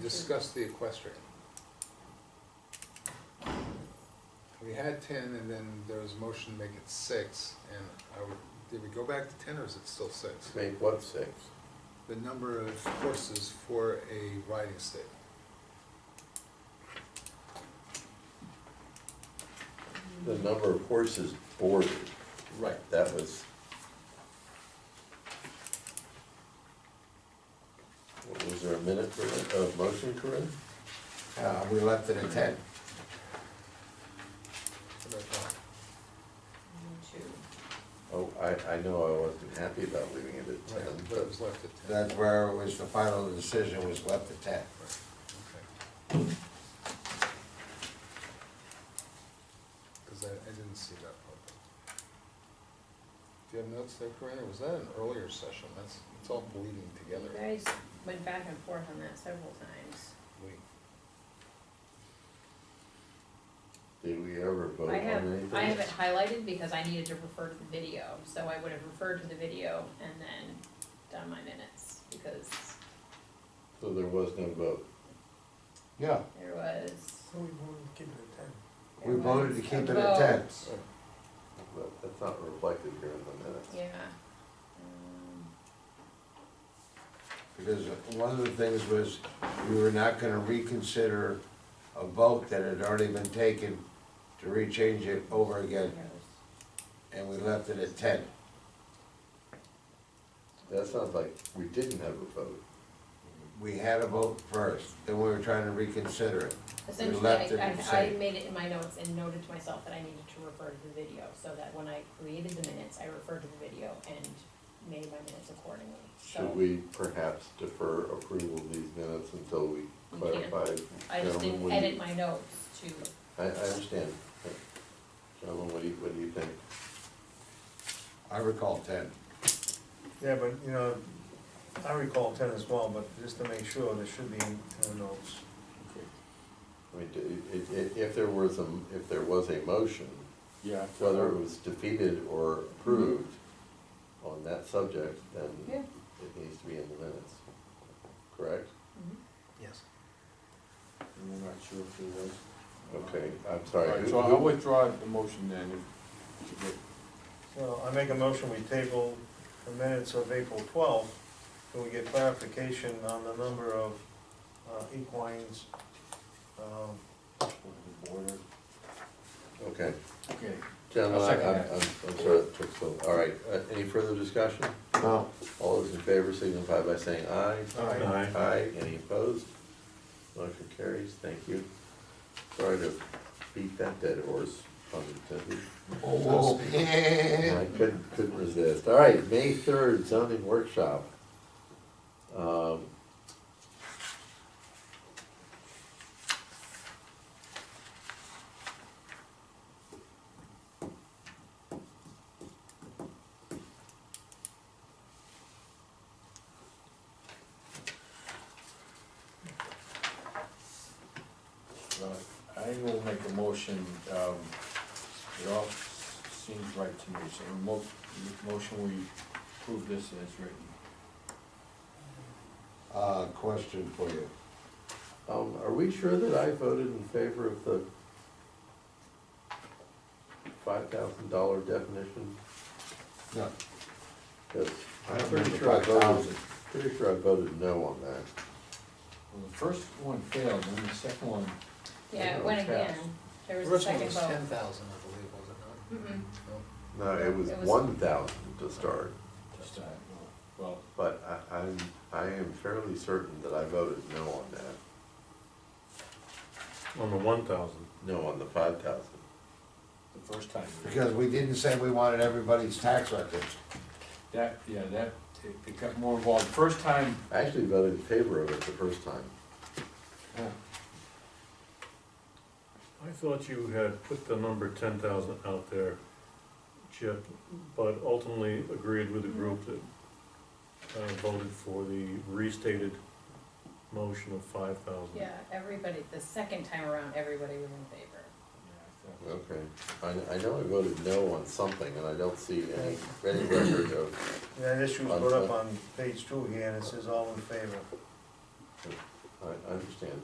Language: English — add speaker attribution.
Speaker 1: discuss the equestrian. We had ten, and then there was a motion to make it six, and I would, did we go back to ten, or is it still six?
Speaker 2: Make what six?
Speaker 1: The number of horses for a riding state.
Speaker 2: The number of horses boarded,
Speaker 1: Right.
Speaker 2: that was. What, Was there a minute for, that? a motion, Corinne?
Speaker 3: Uh, we left it at ten.
Speaker 2: Oh, I, I know I wasn't happy about leaving it at
Speaker 1: Right,
Speaker 2: ten,
Speaker 1: but it
Speaker 2: but
Speaker 1: was left at ten.
Speaker 3: That's where it was, the final decision was left at ten.
Speaker 1: Right, okay. Cause I, I didn't see that part. Do you have notes there, Corinne, or was that an earlier session? That's, it's all bleeding
Speaker 4: You
Speaker 1: together.
Speaker 4: guys went back and forth on that several times.
Speaker 1: Wait,
Speaker 2: did we ever vote on
Speaker 4: I have,
Speaker 2: anything?
Speaker 4: I have it highlighted because I needed to refer to the video, so I would have referred to the video and then done my minutes, because
Speaker 2: So there was no vote.
Speaker 3: Yeah.
Speaker 4: there was.
Speaker 5: So we voted to keep it at ten.
Speaker 4: there
Speaker 3: We voted to
Speaker 4: was
Speaker 3: keep
Speaker 4: a
Speaker 3: it at ten.
Speaker 4: vote.
Speaker 2: Well, That's not reflected here in the minutes.
Speaker 4: Yeah. Um,
Speaker 3: Because one of the things was, we were not gonna reconsider a vote that had already been taken to rechange it over again, and we left it at ten.
Speaker 2: That sounds like we didn't have a vote.
Speaker 3: We had a vote first, then we were trying to reconsider it.
Speaker 4: Essentially,
Speaker 3: left it
Speaker 4: I,
Speaker 3: the
Speaker 4: I, I
Speaker 3: same.
Speaker 4: made it in my notes and noted to myself that I needed to refer to the video, so that when I created the minutes, I referred to the video and made my minutes accordingly, so.
Speaker 2: Should we perhaps defer approval of these minutes until we
Speaker 4: We can.
Speaker 2: clarify?
Speaker 4: I just
Speaker 2: Gentlemen,
Speaker 4: didn't
Speaker 2: what do you-
Speaker 4: edit my notes to,
Speaker 2: I, I understand. Gentlemen, what do you, what do you think?
Speaker 3: I recall ten.
Speaker 5: Yeah, but, you know, I recall ten as well, but just to make sure, there should be in the notes.
Speaker 2: I mean, i- i- i- if there was a, if there was a motion,
Speaker 6: Yeah.
Speaker 2: whether it was defeated or approved on that subject,
Speaker 4: Yeah.
Speaker 2: then it needs to be in the minutes, correct?
Speaker 4: Mhm.
Speaker 1: Yes.
Speaker 6: And we're not sure if it was.
Speaker 2: Okay, I'm
Speaker 6: All
Speaker 2: sorry.
Speaker 6: right,
Speaker 2: who-
Speaker 6: so I
Speaker 2: who-
Speaker 6: withdraw the motion then. if- if it-
Speaker 5: So I make a motion, we table the minutes of April twelfth, till we get clarification on the number of uh, equines. um,
Speaker 6: Border.
Speaker 2: Okay,
Speaker 6: Okay.
Speaker 2: gentlemen,
Speaker 6: I'll
Speaker 2: I-
Speaker 6: second
Speaker 2: I'm,
Speaker 6: that.
Speaker 2: I'm, I'm sorry, that took so, all right, Uh, any further discussion?
Speaker 3: No,
Speaker 2: All those in favor signify by saying aye.
Speaker 5: Aye.
Speaker 2: Aye, any opposed? Motion carries, thank you. Sorry to beat that dead horse, pun intended.
Speaker 3: oh,
Speaker 2: I couldn't, couldn't resist. All right, May third zoning workshop. Um,
Speaker 6: Well, I will make a motion, um, it all seems right to me, so the mo- the motion, we approve this as written.
Speaker 3: Uh, question for you.
Speaker 2: um, are we sure that I voted in favor of the five thousand dollar definition?
Speaker 3: No,
Speaker 2: 'Cause
Speaker 3: I
Speaker 2: I'm
Speaker 3: don't
Speaker 2: pretty
Speaker 3: remember
Speaker 2: sure I voted,
Speaker 3: 5,000.
Speaker 2: pretty sure I voted no on that.
Speaker 6: Well, the first one failed, and the second one,
Speaker 4: yeah, it
Speaker 6: Yeah,
Speaker 4: went
Speaker 6: it was
Speaker 4: again,
Speaker 6: fast.
Speaker 4: there was a
Speaker 1: Originally
Speaker 4: second
Speaker 1: it was
Speaker 4: vote.
Speaker 1: ten thousand, I believe, was it not?
Speaker 4: Mm-mm.
Speaker 1: No.
Speaker 2: No, it was
Speaker 4: It was-
Speaker 2: one thousand to start,
Speaker 6: just, uh, well,
Speaker 2: but I, I'm, I am fairly certain that I voted no on that,
Speaker 7: On the one thousand.
Speaker 2: no on the five thousand.
Speaker 6: the first time.
Speaker 3: because we didn't say we wanted everybody's tax records.
Speaker 6: That, yeah, that, it it got more involved, first time,
Speaker 2: I actually voted in favor of it the first time.
Speaker 6: uh,
Speaker 7: I thought you had put the number ten thousand out there, Chip, but ultimately agreed with the group that uh, voted for the restated motion of five thousand.
Speaker 4: Yeah, everybody, the second time around, everybody was in favor.
Speaker 6: yeah, I thought-
Speaker 2: Okay. I, I know I voted no on something, and I don't see any, any record of,
Speaker 5: That issue's put up on page two here, and it says all in favor.
Speaker 2: I, I understand.